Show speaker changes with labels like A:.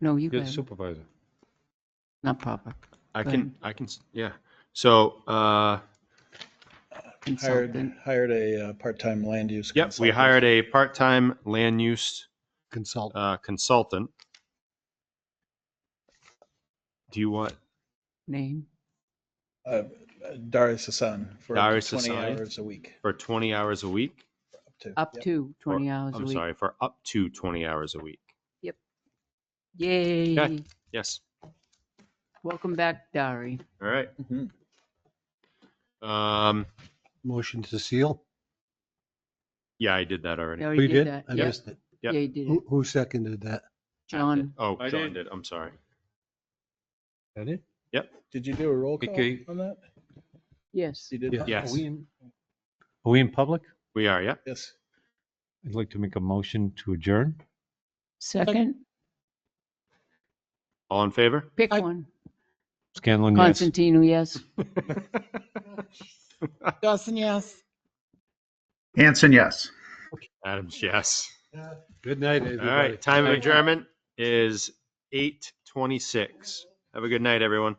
A: No, you go
B: You're the
A: ahead.
B: supervisor.
A: Not proper.
B: I
A: Go
B: can, I can, s- yeah. So, uh,
A: Consultant.
C: Hired, hired a uh, part-time land use.
B: yep, we
C: consultant.
B: hired a part-time land use
D: consult.
B: uh, consultant. Do you want,
A: Name.
C: Uh, Darius Hassan for
B: Darius
C: 20
B: Hassan.
C: hours a week.
B: for 20 hours a week?
A: Up
C: Yep.
A: to
B: Or-
A: 20 hours a
B: I'm
A: week.
B: sorry, for up to 20 hours a week.
A: Yay.
B: Yes,
A: Welcome back, Dari.
B: all right.
C: Mhm.
B: Um,
D: Motion to seal?
B: yeah, I did that already.
A: Dari
D: We
A: did
D: did?
A: that.
D: I
A: Yep.
D: missed it.
A: Yeah,
B: Yep.
A: you did it.
D: Who, who seconded that?
A: John,
B: Oh,
E: I
B: John
E: did.
B: did, I'm sorry.
D: That it?
C: Did you do a roll call
E: Okay.
C: on that?
A: yes.
C: You did?
B: Yes.
E: Are we in public?
B: We are, yep.
C: Yes.
E: I'd like to make a motion to adjourn.
A: Second,
B: All in favor?
A: pick one.
E: Scanlon, yes.
A: Constantino, yes.
F: Dawson, yes.
G: Hanson, yes.
B: Adams, yes.
D: Good night,
B: All
D: everybody.
B: right, time of
D: Thank you.
B: adjournment is 8:26. Have a good night, everyone.